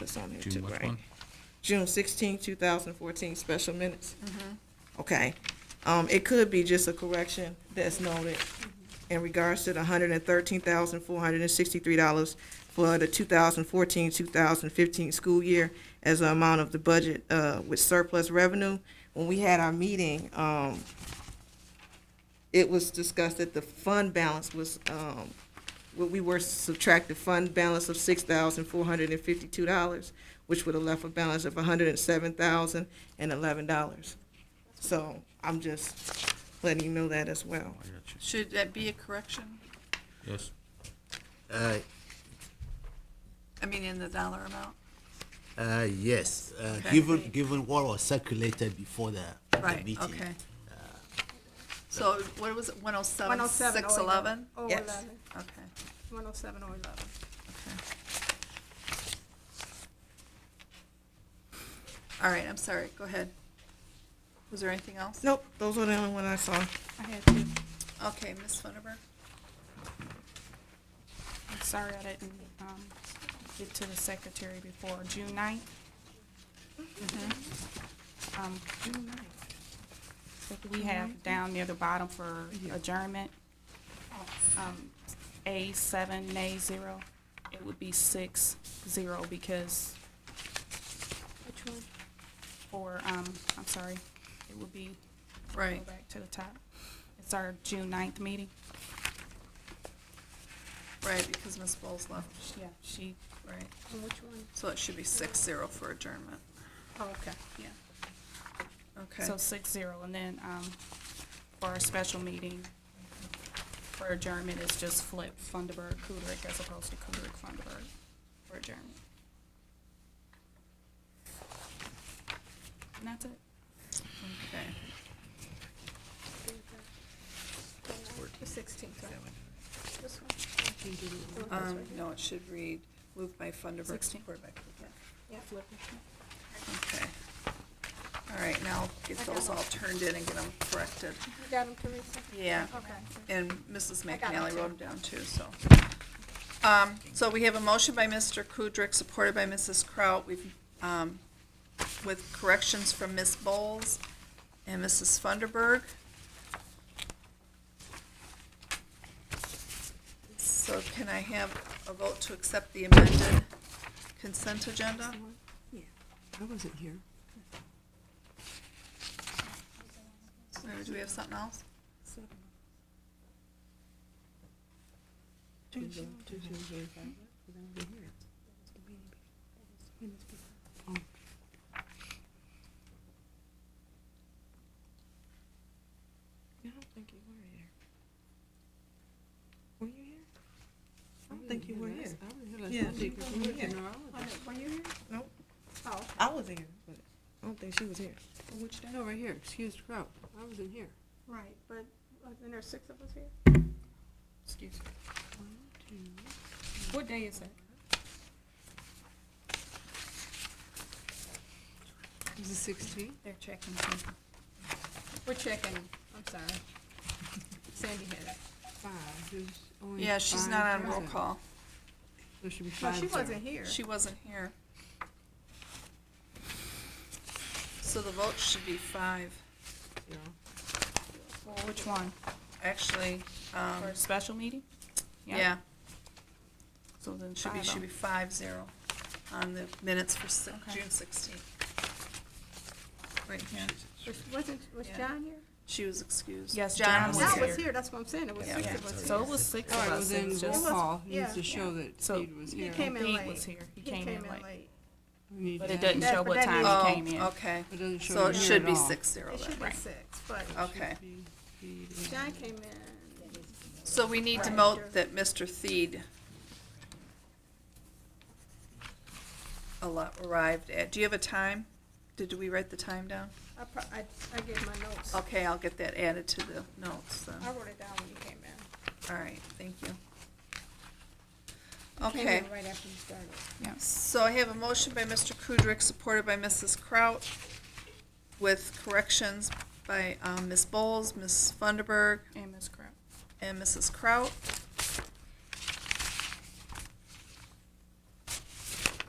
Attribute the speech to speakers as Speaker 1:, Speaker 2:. Speaker 1: it's on there
Speaker 2: June
Speaker 1: too,
Speaker 2: which
Speaker 1: right?
Speaker 2: one?
Speaker 1: June sixteenth, two thousand fourteen, special minutes? Okay, um, it could be just a correction that's noted in regards to the hundred and thirteen thousand, four hundred and sixty-three dollars for the 2014-2015 school year as an amount of the budget, uh, with surplus revenue. When we had our meeting, um, it was discussed that the fund balance was, um, well, we were subtract the fund balance of six thousand four hundred and fifty-two dollars, which would have left a balance of hundred and seven thousand and eleven dollars. So I'm just letting you know that as well.
Speaker 2: I got you.
Speaker 3: Should that be a correction?
Speaker 2: Yes,
Speaker 4: Uh,
Speaker 3: I mean, in the dollar amount?
Speaker 4: uh, yes, uh,
Speaker 3: Okay.
Speaker 4: given, given what was circulated before the, the
Speaker 3: Right,
Speaker 4: meeting.
Speaker 3: okay. So what was it, one oh seven,
Speaker 5: 107
Speaker 3: six eleven?
Speaker 6: Oh,
Speaker 5: or
Speaker 1: Yes.
Speaker 5: 11.
Speaker 3: Okay,
Speaker 5: 107 or 11.
Speaker 3: okay. All right, I'm sorry, go ahead. Was there anything else?
Speaker 1: Nope, those were the only one I saw.
Speaker 5: I had to,
Speaker 3: Okay, Ms. Funderburg?
Speaker 5: I'm sorry I didn't um, get to the secretary before June 9th. Um, June 9th. We have down near the bottom for adjournment, um, A seven, nay zero. It would be six, zero because. Which one? Or, um, I'm sorry, it would be
Speaker 3: Right,
Speaker 5: Go back to the top. It's our June 9th meeting.
Speaker 3: right, because Ms. Bowles left,
Speaker 5: Yeah, she,
Speaker 3: right.
Speaker 6: On which one?
Speaker 3: So it should be six zero for adjournment.
Speaker 5: oh, okay.
Speaker 3: Yeah. Okay,
Speaker 5: So six zero, and then, um, for our special meeting, for adjournment, it's just flip Funderburg, Kudrick, as opposed to Kudrick, Funderburg for adjournment. And that's it.
Speaker 3: okay.
Speaker 6: The sixteenth, right? This one? The one that's
Speaker 3: Um,
Speaker 6: right here?
Speaker 3: no, it should read, moved by Funderburk,
Speaker 5: Sixteen.
Speaker 3: supported by Kukrow.
Speaker 6: Yeah,
Speaker 5: Flip it.
Speaker 3: Okay. All right, now get
Speaker 6: I got
Speaker 3: those all
Speaker 6: one.
Speaker 3: turned in and get them corrected.
Speaker 6: You got 'em, Teresa?
Speaker 3: Yeah.
Speaker 6: Okay.
Speaker 3: And Mrs.
Speaker 6: I got
Speaker 3: McNally
Speaker 6: it,
Speaker 3: wrote them down too, so. Um, so we have a motion by Mr. Kudrick, supported by Mrs. Kraut. We've, um, with corrections from Ms. Bowles and Mrs. Funderburg. So can I have a vote to accept the amended consent agenda?
Speaker 7: I wasn't here.
Speaker 3: Or do we have something else?
Speaker 7: I don't think you were here. Were you here? I don't think you were here. I
Speaker 1: Yeah.
Speaker 7: didn't realize you were here. No, I wasn't.
Speaker 6: Were you here?
Speaker 1: Nope.
Speaker 6: Oh,
Speaker 1: I was here, but I don't think she was here.
Speaker 7: Which day? Over here, excuse the crowd. I wasn't here.
Speaker 6: right, but, uh, and there's six of us here?
Speaker 5: Excuse me. What day is that?
Speaker 7: It was the sixteenth?
Speaker 5: They're checking something. We're checking, I'm sorry. Sandy had it.
Speaker 7: Five. There's only
Speaker 3: Yeah, she's
Speaker 7: five
Speaker 3: not on roll
Speaker 7: present.
Speaker 3: call.
Speaker 7: There should be
Speaker 6: No,
Speaker 7: five.
Speaker 6: she
Speaker 7: there.
Speaker 6: wasn't here.
Speaker 3: She wasn't here. So the vote should be five.
Speaker 7: Zero.
Speaker 5: Well, which one?
Speaker 3: Actually, um,
Speaker 5: For a special meeting?
Speaker 3: yeah,
Speaker 5: So then
Speaker 3: should be,
Speaker 5: five
Speaker 3: should
Speaker 5: oh.
Speaker 3: be five zero on the minutes for si-
Speaker 5: Okay.
Speaker 3: June sixteenth. Right here.
Speaker 6: Was, wasn't, was
Speaker 3: Yeah.
Speaker 6: John here?
Speaker 3: She was excused.
Speaker 5: Yes, John
Speaker 3: John
Speaker 5: was
Speaker 3: was
Speaker 6: John
Speaker 5: here.
Speaker 3: here.
Speaker 6: was here, that's what I'm saying, it was
Speaker 3: Yeah.
Speaker 6: six
Speaker 3: Yeah.
Speaker 6: of us
Speaker 5: So
Speaker 6: here.
Speaker 5: it was six
Speaker 7: All
Speaker 5: of
Speaker 7: right, well
Speaker 5: us, it
Speaker 7: then
Speaker 5: was
Speaker 7: roll
Speaker 5: just,
Speaker 7: call needs
Speaker 6: yeah.
Speaker 7: to show that
Speaker 5: So-
Speaker 7: Steve was
Speaker 6: He
Speaker 7: here.
Speaker 6: came in
Speaker 5: Dean was
Speaker 6: late.
Speaker 5: here, he came in late.
Speaker 7: We need
Speaker 5: But
Speaker 7: to
Speaker 5: it
Speaker 7: have-
Speaker 5: doesn't
Speaker 6: That-
Speaker 5: show
Speaker 6: but
Speaker 5: what
Speaker 6: that
Speaker 5: time he
Speaker 3: Oh,
Speaker 5: came in.
Speaker 3: okay.
Speaker 7: It doesn't show
Speaker 3: So
Speaker 7: it
Speaker 3: it
Speaker 7: here
Speaker 3: should
Speaker 7: at
Speaker 3: be
Speaker 7: all.
Speaker 3: six zero
Speaker 6: It
Speaker 3: then.
Speaker 6: should be
Speaker 5: Right.
Speaker 6: six, but
Speaker 3: Okay.
Speaker 7: Be- be-
Speaker 6: John came in,
Speaker 3: So we need to
Speaker 6: Right.
Speaker 3: note that Mr. Theed a lot arrived at, do you have a time? Did we write the time down?
Speaker 6: I pro, I, I gave my notes. I
Speaker 3: Okay, I'll get that added to the notes, then.
Speaker 6: wrote it down when you came in.
Speaker 3: all right, thank you.
Speaker 6: You
Speaker 3: Okay.
Speaker 6: Came in right after you started.
Speaker 3: So I have a motion by Mr. Kudrick, supported by Mrs. Kraut, with corrections by um, Ms. Bowles, Ms. Funderburg,
Speaker 5: And Ms. Kraut.
Speaker 3: and Mrs. Kraut.